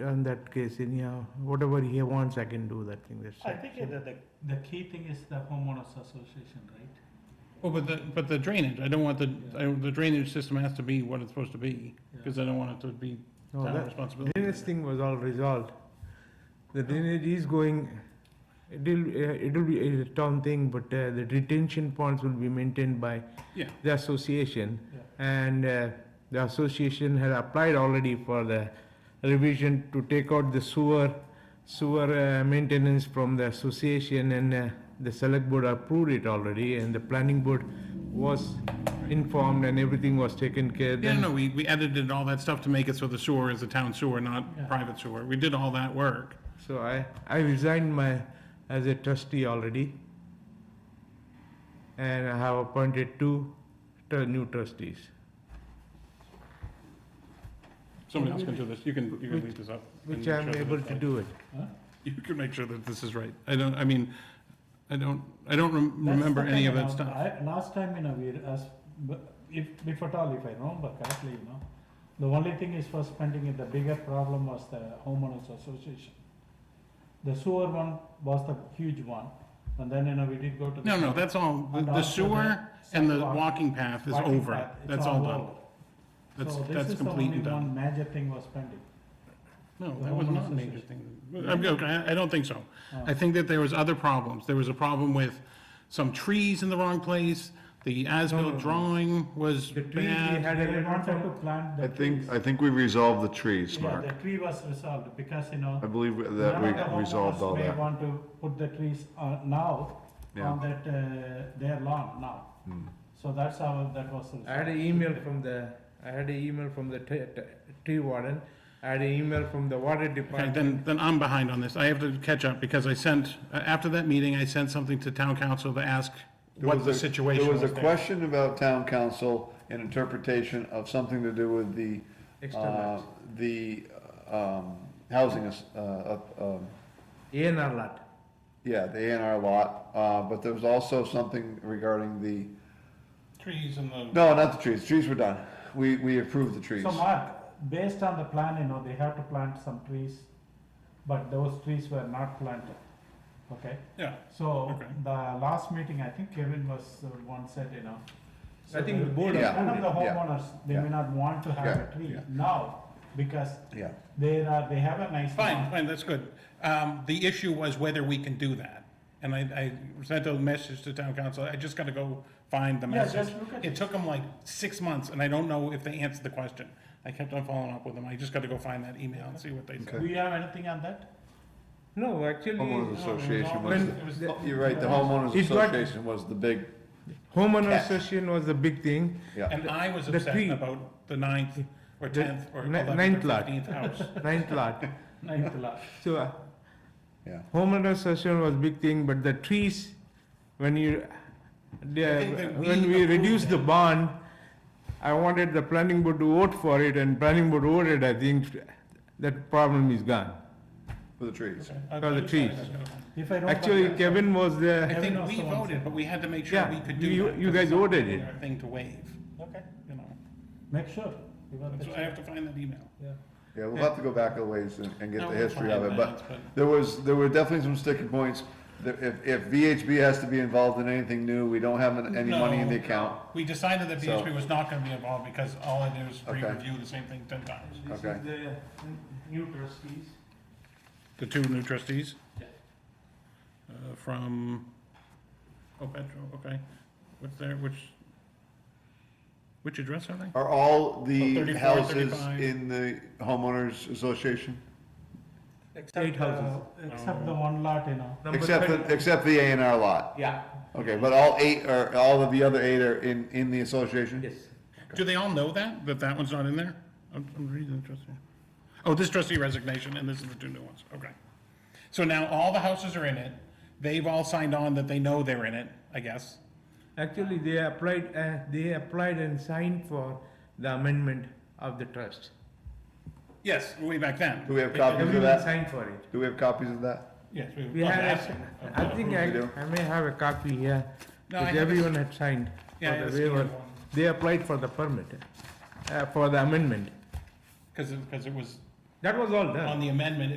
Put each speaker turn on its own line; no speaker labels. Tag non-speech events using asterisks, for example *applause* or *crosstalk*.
on that case, anyhow, whatever he wants, I can do that thing, that's
I
it.
think the, the, the key thing is the homeowners association, right?
Well, but the, but the drainage, I don't want the, I- the drainage system has to be what it's supposed to be, because I don't want it to be
No,
town
that-
responsibility.
Drainage thing was all resolved. The drainage is going, it'll, uh, it'll be a town thing, but uh, the detention ponds will be maintained by
Yeah.
the association.
Yeah.
And uh, the association had applied already for the revision to take out the sewer, sewer uh, maintenance from the association and uh, the select board approved it already and the planning board was informed and everything was taken care.
Yeah,
Then-
no, we, we edited all that stuff to make it so the sewer is a town sewer,
Yeah.
not private sewer. We did all that work.
So I, I resigned my, as a trustee already. And I have appointed two tr- new trustees.
Somebody else can do this, you can, you can leave this up. and
Which
make
I'm
sure that
able
it's
to
right.
do it.
Huh?
*laughs* You can make sure that this is right. I don't, I mean, I don't, I don't rem-
That's
remember
the
any
thing,
of
you
that
know,
stuff.
I, last time, you know, we asked, but if, if at all, if I remember correctly, you know, the only thing is for spending it, the bigger problem was the homeowners association. The sewer one was the huge one, and then, you know, we did go to. the-
No, no, that's all, the-
And
the
also
sewer and the
sidewalk-
walking path is
walking
over.
path, it's
That's all done.
over.
That's,
So this
that's
is the
complete
only
and done.
one Major thing was pending.
No,
The
that was
homeowners
not a major thing.
association.
I'm, go- I I don't think so.
Oh.
I think that there was other problems. There was a problem with some trees in the wrong place, the
no,
as-built
no.
drawing was
The tree we
bad.
had a
They
letter
wanted
from,
to plant the
I
trees.
think, I think we resolved the trees,
Yeah,
Mark.
the tree was resolved because, you know.
I believe that
none of the
we resolved all
homeowners May
that.
want to put the trees uh, now on
Yeah.
that, uh, their lawn now.
Hmm.
So that's how that was resolved.
I had an email from the, I had an email from the t- t- tree warden. I had an email from the water
Okay,
department.
then, then I'm behind on this. I have to catch up because I sent, uh, after that meeting, I sent something to town council to ask
There
what
was
the
a-
situation was
There was a
there.
question about town council and interpretation of something to do with the, uh,
External,
the, um, housing, as- uh, up, um,
A and R lot.
yeah, the A and R lot. Uh, but there was also something regarding the,
Trees and the,
no, not the trees. Trees were done. We, we approved the trees.
So Mark, based on the plan, you know, they have to plant some trees, but those trees were not planted, okay?
yeah,
So
Okay.
the last meeting, I think Kevin was, uh, one said, you know. so
I think the board
Yeah.
None of the
Yeah.
homeowners, they may
Yeah.
not want to have
Yeah.
a tree
Yeah.
now because
Yeah.
they are, they have a nice.
fine,
Uh-huh.
lawn.
fine, that's good. Um, the issue was whether we can do that. And I, I sent a message to town council. I just gotta go find the
Yeah,
message.
just look at
It took them like six months, and I don't know if they answered the question. I kept on following up with them. I just got to go find that email and see what they
Do
said.
you have anything on that?
No, actually. uh,
Homeowners Association was,
When
the-
the-
you're right, the homeowners
It got-
association was the big,
Homeowner
Cat.
association was the big thing.
yeah.
And I was
The
upset
tree.
about the ninth, or
The
tenth, or
ni-
eleventh,
ninth
or
lot.
fifteenth
*laughs*
house.
Ninth
*laughs*
lot.
Ninth lot.
So uh,
Yeah.
homeowner association was big thing, but the trees, when you, the-
think that we
when we
approved
reduced the bond, I wanted the planning board to vote for it, and planning board voted, I think that problem is gone.
For the trees.
I-
For the
I- I-
trees.
If I remember.
Actually,
correctly-
Kevin was
I
there,
think
Kevin
we
also wants
voted,
it.
but we had to make sure
Yeah,
we could do
you-
that.
you
'cause
guys
it's not
voted
really
it.
our Thing to waive,
Okay,
you know.
make sure. you got the
So I have to find that email.
Yeah.
Yeah, we'll have to go back a ways and, and get
No,
the
we'll
history of
find
it,
that,
but there was, there were definitely some sticking points. There- If, if VHB has to be involved in anything new, we don't have an- any money in the
No,
account,
We decided that
So-
VHB was not gonna be involved because all I do is
Okay.
re-review the same thing ten times.
this is
Okay.
the uh, new trustees.
The two new trustees?
Yeah.
Uh, from, oh, Petro, okay. What's there, which, which address are they?
are all
Oh,
the
34,
houses
35.
in the homeowners association?
Eight houses.
uh, Except the one lot, you know.
Number
Except, the-
30
except the A and R lot.
Yeah,
Okay, but all eight, are all of the other eight are in, in the association?
yes.
Do they all know that, that that one's not in there? I'm, I'm reading the trustee. Oh, this trustee resignation and this is the two new ones, okay. So now all the houses are in it. They've all signed on that they know they're in it, I guess.
Actually, they applied, uh, they applied and signed for the amendment of the trust.
Yes, way back then.
Do we have copies? Remember
Everyone
that?
signed for it.
Do we have copies of that?
Yes.
We
well,
had,
that's-
a- I think I,
We do.
I may have a copy here,
No, I
because
have a-
everyone had signed
Yeah, I
for
have
the
a scanned
waiver.
one.
They applied for the permit, uh, for the amendment.
Because it, because it was
That was all done.
on the amendment,